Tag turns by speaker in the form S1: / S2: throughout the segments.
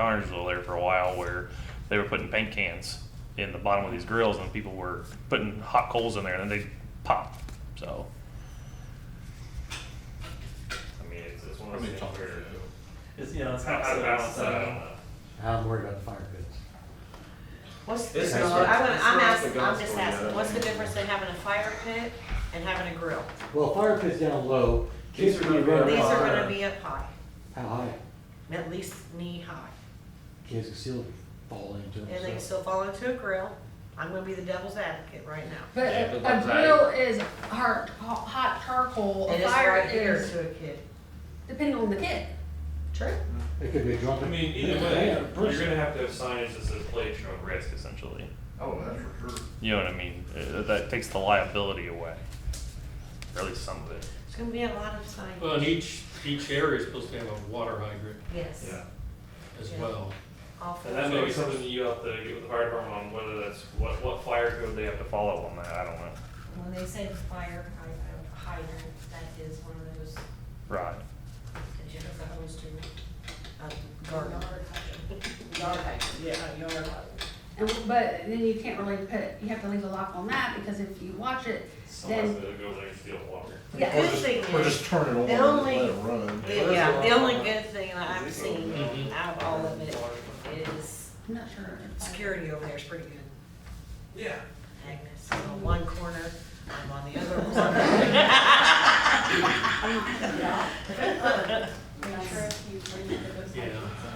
S1: Connersville there for a while where they were putting paint cans in the bottom of these grills and people were putting hot coals in there and then they pop. So,
S2: I mean, it's, it's one of
S3: Probably
S2: those things
S3: talk
S2: where,
S4: It's, you know, it's
S2: how
S4: not
S2: how
S4: so
S2: to balance that, I don't
S4: so-
S2: know.
S5: I'm worried about the fire pits.
S6: What's the
S2: This
S6: difference,
S2: is
S6: I'm,
S2: what-
S6: gonna-
S2: this
S6: I'm
S2: is
S6: asking,
S2: the
S6: I'm just
S2: gospel, yeah.
S6: asking, what's the difference in having a fire pit and having a grill?
S5: Well, fire pits down low.
S2: These are
S5: kids can
S2: gonna be
S5: run
S2: up
S6: These are
S5: high.
S6: gonna be up high,
S5: How high?
S6: at least knee high,
S5: Kids can still fall into them.
S6: and they can
S5: so.
S6: still fall into a grill. I'm gonna be the devil's advocate right now.
S7: But
S2: Yeah,
S7: a,
S2: but
S7: a
S2: what's that?
S7: grill is hard, hot charcoal.
S6: And
S7: a
S6: it's
S7: fire
S6: right here
S7: is
S6: to a kid.
S7: depending on the kid.
S6: True.
S5: It could be a drunken.
S2: I mean, either way, you're gonna have to have signage that says play at your own risk, essentially.
S3: Oh, that's for sure.
S1: you know what I mean? Uh, that takes the liability away, or at least some of it.
S6: It's gonna be a lot of signage.
S8: Well, and each, each area is supposed to have a water hydrant
S6: Yes.
S2: Yeah.
S8: as
S6: Yeah.
S8: well.
S6: All four.
S1: And
S2: And that may be
S1: So-
S2: something that you have to get with the fire department on, whether that's, what, what fire code they have to follow on that, I don't know.
S9: When they said fire hy- uh, hydrant, that is one of those that
S1: Right.
S9: you hook the hose to.
S6: A garden.
S9: Uh, Yard hydrant, yeah, yard hydrant.
S7: And, but then you can't really put, you have to leave a lock on that because if you watch it,
S2: Someone's
S7: Then-
S2: gonna go there and steal water.
S6: The
S7: yeah,
S6: good thing
S3: Or
S6: is,
S3: just turn it on
S6: The
S3: and
S6: only-
S3: let it run.
S2: Yeah,
S6: yeah,
S2: that's
S6: the
S2: a lot.
S6: only good thing that
S9: Mm-hmm.
S6: I've seen
S8: Mhm.
S6: out of all of it is
S7: I'm not sure. if I-
S6: security over there is pretty good.
S2: Yeah.
S6: Agnes, I'm on one corner, I'm on the other corner.
S7: I'm not sure if you-
S8: Yeah.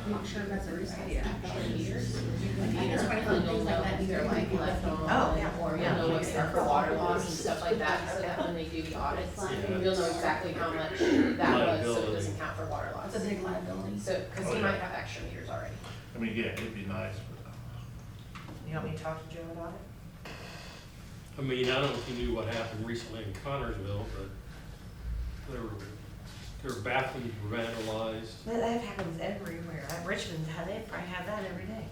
S7: I'm not sure if that's a reason.
S10: It's funny how things like that, either like left on.
S6: Oh, yeah.
S10: Or
S6: Yeah.
S10: you'll know what's there for water loss and stuff like that, so that when they do the audits,
S8: Yeah.
S10: you'll know exactly how much that was, so it
S8: Liability.
S10: doesn't count for water loss.
S7: It's a big liability.
S10: So, cause you might have extra meters already.
S3: I mean, yeah, it'd be nice, but. uh,
S6: You want me to talk to Joe about it?
S8: I mean, I don't know if you knew what happened recently in Connersville, but there were, there were bathrooms were vandalized,
S6: That, that happens everywhere. At Richmond, how they probably have that every day.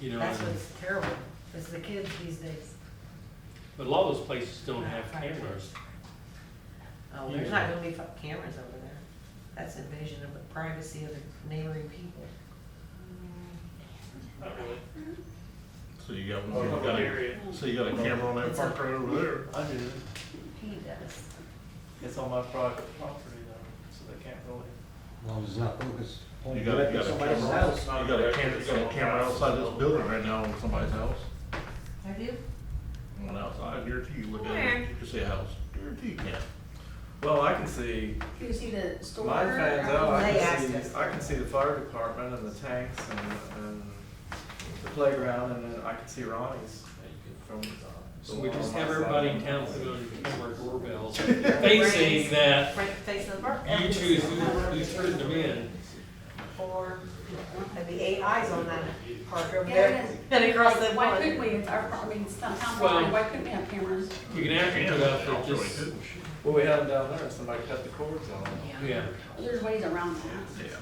S8: you know,
S6: That's
S8: and-
S6: what's terrible, is the kids these days.
S8: but a lot of those places don't have cameras.
S6: Oh, there's not gonna be fu- cameras over there. That's invasion of the privacy of the neighboring people.
S2: Not really.
S3: So you got
S2: Oh,
S3: one, you
S2: public
S3: got a,
S2: area.
S3: so you got a camera on that park right over there.
S4: I do.
S6: He does.
S4: It's on my private property though, so they can't really.
S5: As long as it's not focused. on
S3: You got a, you got a
S5: somebody's
S3: camera,
S5: house.
S3: outs- you got a camera, you got a camera outside this building right now on somebody's house.
S6: I do?
S3: One outside, guarantee you look at it, you can see a house, guarantee you can.
S2: Well, I can see,
S7: Can you see the store? Um,
S2: my fans out, I
S6: They
S2: can
S6: asked us.
S2: see, I can see the fire department and the tanks and, and the playground, and then I can see Ronnie's from the.
S8: So we
S2: on
S8: just
S2: my
S8: have
S2: side.
S8: everybody in town put on camera doorbells facing that
S6: Right, face of the park.
S8: you choose who, who's putting them in.
S6: Four, that'd be eight eyes on that park over
S7: Yeah,
S6: there.
S7: it is.
S6: And across the
S7: Why couldn't
S6: pond.
S7: we, It's our, I mean, sometimes,
S8: Well-
S7: why couldn't we have cameras?
S8: You can actually put up
S3: Yeah,
S8: that
S3: really
S8: just,
S3: good.
S2: Well, we had them down there, and somebody cut the cords on them.
S8: yeah,
S7: There's ways around that.
S3: Yeah,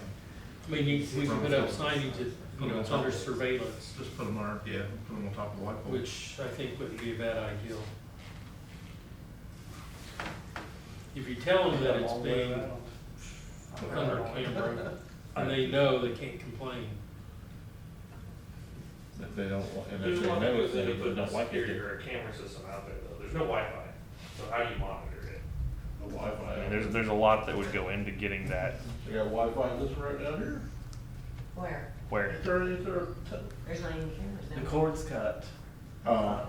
S8: I mean, you, we can put up signage that, you know, it's under surveillance,
S3: just put them on, yeah, put them on top of the light pole.
S8: which I think wouldn't be a bad idea. If you tell them that it's
S2: Long way
S8: being
S2: around.
S8: under camera, and they know they can't complain.
S3: If they don't, wa- and
S2: There's
S3: if
S2: a
S3: they
S2: lot of
S3: know
S2: people
S3: it's
S2: that
S3: there,
S2: are
S3: but
S2: putting a
S3: don't like
S2: security
S3: it,
S2: or a camera system out there though, there's no Wi-Fi, so how do you monitor it?
S3: the
S1: I mean,
S3: Wi-Fi.
S1: there's there's a lot that would go into getting that
S3: They got Wi-Fi in this right down here?
S6: Where?
S1: where
S3: It's already- it's already-
S6: There's not even cameras now.
S2: The cords cut.
S3: Uh,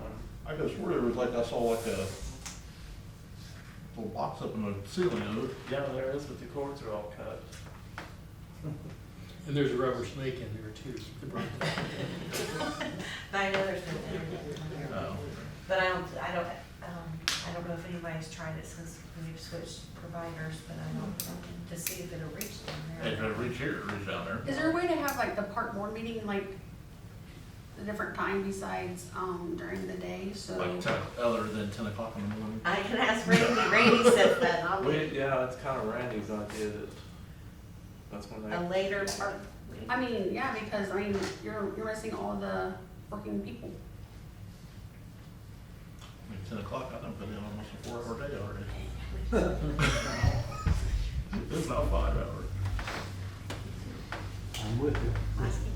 S3: I guess where there was like, I saw like a little box up in the ceiling of it.
S2: Yeah, there is, but the cords are all cut.
S8: And there's a rubber snake in there too.
S6: I know there's no internet on there.
S3: Oh.
S6: But I don't, I don't, um, I don't know if anybody's tried it since we've switched providers, but I don't, to see if it'll reach down there.
S3: If it reach here, it reach down there.
S7: Is there a way to have like the park board meeting like a different time besides um during the day, so?
S3: Like ten, other than ten o'clock in the morning.
S6: I can ask Randy, Randy said that, and I'll
S2: We,
S6: be
S2: yeah, it's kind of Randy's idea that, that's when they.
S6: a later part.
S7: I mean, yeah, because I mean, you're you're missing all the working people.
S3: I mean, ten o'clock, I done put in almost a four-hour day already. It's not five hours.
S5: I I'm with you.